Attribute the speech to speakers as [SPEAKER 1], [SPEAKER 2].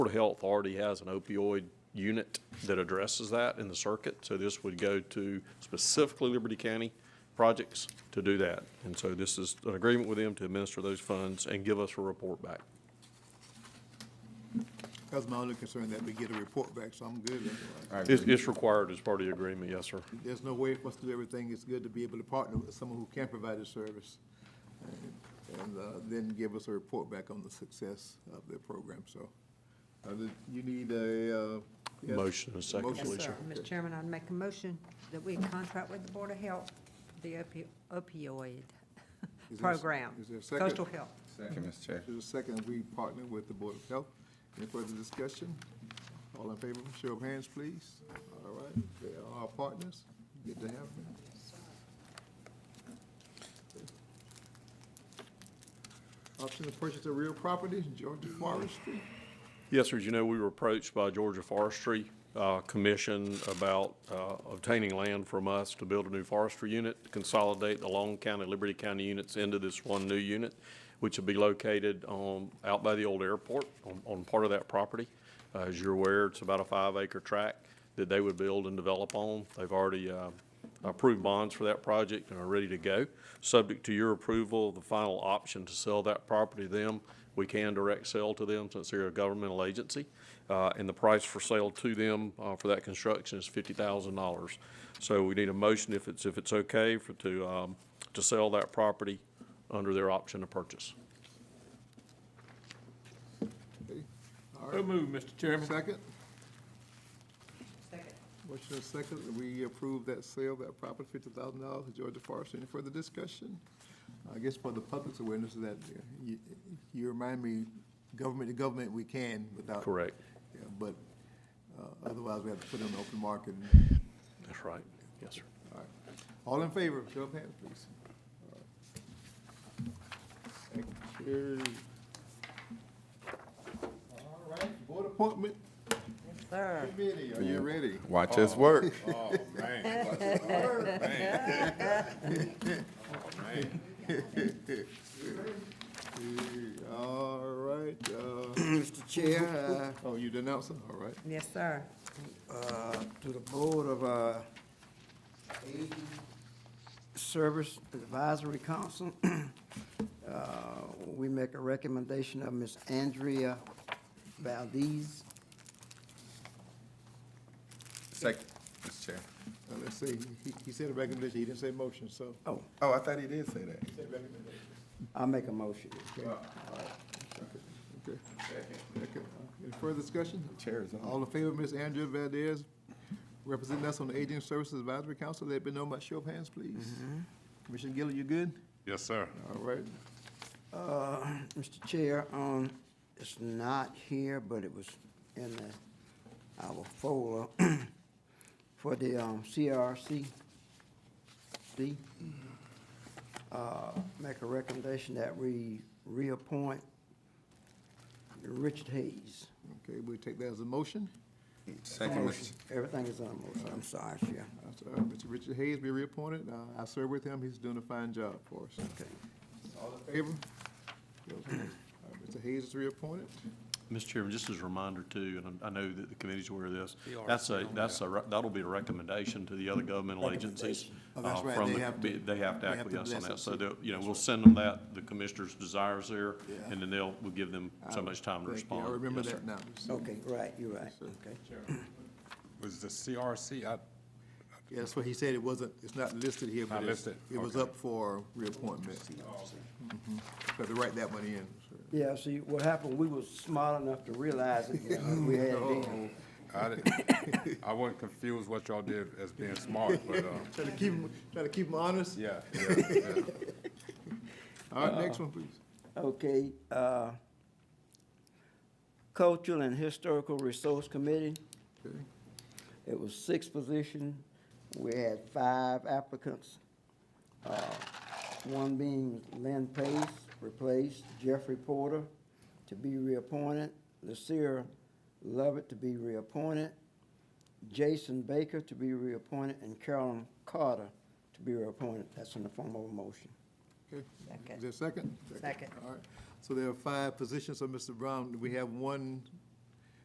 [SPEAKER 1] of Health already has an opioid unit that addresses that in the circuit. So this would go to specifically Liberty County projects to do that. And so this is an agreement with them to administer those funds and give us a report back.
[SPEAKER 2] That's my only concern, that we get a report back, so I'm good. otherwise.
[SPEAKER 1] It's, it's required as part of the agreement, yes, sir.
[SPEAKER 2] There's no way for us to do everything. It's good to be able to partner with someone who can provide a service and uh, then give us a report back on the success of their program, so. uh, the- You need a. uh, yes?
[SPEAKER 1] Motion and a second,
[SPEAKER 2] Motion.
[SPEAKER 1] please.
[SPEAKER 3] Yes, sir.
[SPEAKER 1] Felicia.
[SPEAKER 3] Mr. Chairman, I'd make a motion that we contract with the Board of Health, for the opi- opioid
[SPEAKER 2] Is there a s-
[SPEAKER 3] program.
[SPEAKER 2] is there a second?
[SPEAKER 3] Coastal Health.
[SPEAKER 4] Second, Mr. Chair.
[SPEAKER 2] There's a second, we partner with the Board of Health. Any further discussion? All in favor, show of hands, please. All right, they are our partners. Good to have them. Option to purchase of real property, Georgia Forestry.
[SPEAKER 1] Yes, sir. As you know, we were approached by Georgia Forestry uh, Commission about uh, obtaining land from us to build a new forestry unit, to consolidate the Long County, Liberty County units into this one new unit, which will be located on, out by the old airport, on, on part of that property. Uh, As you're aware, it's about a five-acre tract that they would build and develop on. They've already uh, approved bonds for that project and are ready to go. Subject to your approval, the final option to sell that property to them, we can direct sell to them since they're a governmental agency. Uh, and the price for sale to them, uh, for that construction is fifty thousand dollars. So we need a motion if it's, if it's okay for, to, um, to sell that property under their option to purchase.
[SPEAKER 2] All
[SPEAKER 5] So
[SPEAKER 2] right,
[SPEAKER 5] moved, Mr. Chairman.
[SPEAKER 2] second,
[SPEAKER 3] Second.
[SPEAKER 2] motion is second, we approve that sale, of that property, fifty thousand dollars to Georgia Forestry. Any further discussion? I guess for the public's awareness that uh, you, you remind me, government to government, we can without.
[SPEAKER 1] Correct.
[SPEAKER 2] Yeah, But uh, otherwise, we have to put it on the open market. and-
[SPEAKER 1] That's right. Yes, sir.
[SPEAKER 2] all right. All in favor, show of hands, please. All right. Thank you. All right, board appointment
[SPEAKER 3] Sir,
[SPEAKER 2] committee, are you ready?
[SPEAKER 4] Watch us work.
[SPEAKER 2] All right, uh,
[SPEAKER 6] Mr. Chair,
[SPEAKER 2] oh, you denounce it, all right.
[SPEAKER 3] yes, sir.
[SPEAKER 6] uh, uh, to the Board of uh, Aging Service Advisory Council, uh, we make a recommendation of Ms. Andrea Valdez.
[SPEAKER 4] Second, Mr. Chair.
[SPEAKER 2] Now, let's see, he, he said a recommendation, he didn't say motion, so.
[SPEAKER 6] Oh,
[SPEAKER 4] Oh, I thought he did say that.
[SPEAKER 2] Said recommendation.
[SPEAKER 6] I make a motion.
[SPEAKER 2] Okay. Okay. Any further discussion?
[SPEAKER 4] Chair is on.
[SPEAKER 2] All in favor, Ms. Andrea Valdez, representing us on the Aging Services Advisory Council, let me know by show of hands, please. Commissioner Gillen, you good?
[SPEAKER 7] Yes, sir.
[SPEAKER 2] All right.
[SPEAKER 6] Uh, Mr. Chair, um, it's not here, but it was in the, our folder for the, um, CRC. D. Uh, make a recommendation that we reappoint Richard Hayes.
[SPEAKER 2] Okay, we'll take that as a motion.
[SPEAKER 4] Second, Mr. Chair.
[SPEAKER 6] Everything is on the motion, I'm sorry, Chair.
[SPEAKER 2] That's, uh, Mr. Richard Hayes be reappointed. Uh, I serve with him. He's doing a fine job for us.
[SPEAKER 6] Okay.
[SPEAKER 2] All in favor? Those opposed? All right, Mr. Hayes is reappointed.
[SPEAKER 1] Mr. Chairman, just as a reminder too, and I I know that the committee's aware of this, that's a, that's a, re- that'll be a recommendation to the other governmental agencies.
[SPEAKER 2] Oh, that's
[SPEAKER 1] uh,
[SPEAKER 2] right.
[SPEAKER 1] from
[SPEAKER 2] They
[SPEAKER 1] the-
[SPEAKER 2] have to-
[SPEAKER 1] They have
[SPEAKER 2] they
[SPEAKER 1] to
[SPEAKER 2] have to
[SPEAKER 1] acquiesce on
[SPEAKER 2] bless
[SPEAKER 1] that,
[SPEAKER 2] us.
[SPEAKER 1] so they'll, you know, we'll send them that, the commissioner's desires there,
[SPEAKER 2] Yeah.
[SPEAKER 1] and then they'll, we'll give them so much time to
[SPEAKER 2] Thank you.
[SPEAKER 1] respond.
[SPEAKER 2] I remember
[SPEAKER 1] Yes, sir.
[SPEAKER 2] that now.
[SPEAKER 6] Okay, right, you're right, okay.
[SPEAKER 7] Was the CRC, I,
[SPEAKER 2] Yeah, that's what he said. It wasn't, it's not listed here, but
[SPEAKER 7] Not
[SPEAKER 2] it's-
[SPEAKER 7] listed.
[SPEAKER 2] it was
[SPEAKER 7] Okay.
[SPEAKER 2] up for reappointment. Mhm. So to write that one in. sir.
[SPEAKER 6] Yeah, see, what happened, we was smart enough to realize it, when we had it in.
[SPEAKER 7] I didn't, I wasn't confused what y'all did as being smart, but, uh,
[SPEAKER 2] Try to keep him, try to keep him honest.
[SPEAKER 7] yeah, yeah, yeah.
[SPEAKER 2] All right, next one, please.
[SPEAKER 6] Okay, uh, Cultural and Historical Resource Committee,
[SPEAKER 2] Okay.
[SPEAKER 6] it was six positions. We had five applicants, uh, one being Lynn Pace, replaced, Jeffrey Porter to be reappointed, Lucille Lovett to be reappointed, Jason Baker to be reappointed, and Carolyn Carter to be reappointed. That's in the form of a motion.
[SPEAKER 2] Okay.
[SPEAKER 3] Second.
[SPEAKER 2] Is there a second?
[SPEAKER 3] Second.
[SPEAKER 2] All right. So there are five positions, so Mr. Brown, we have one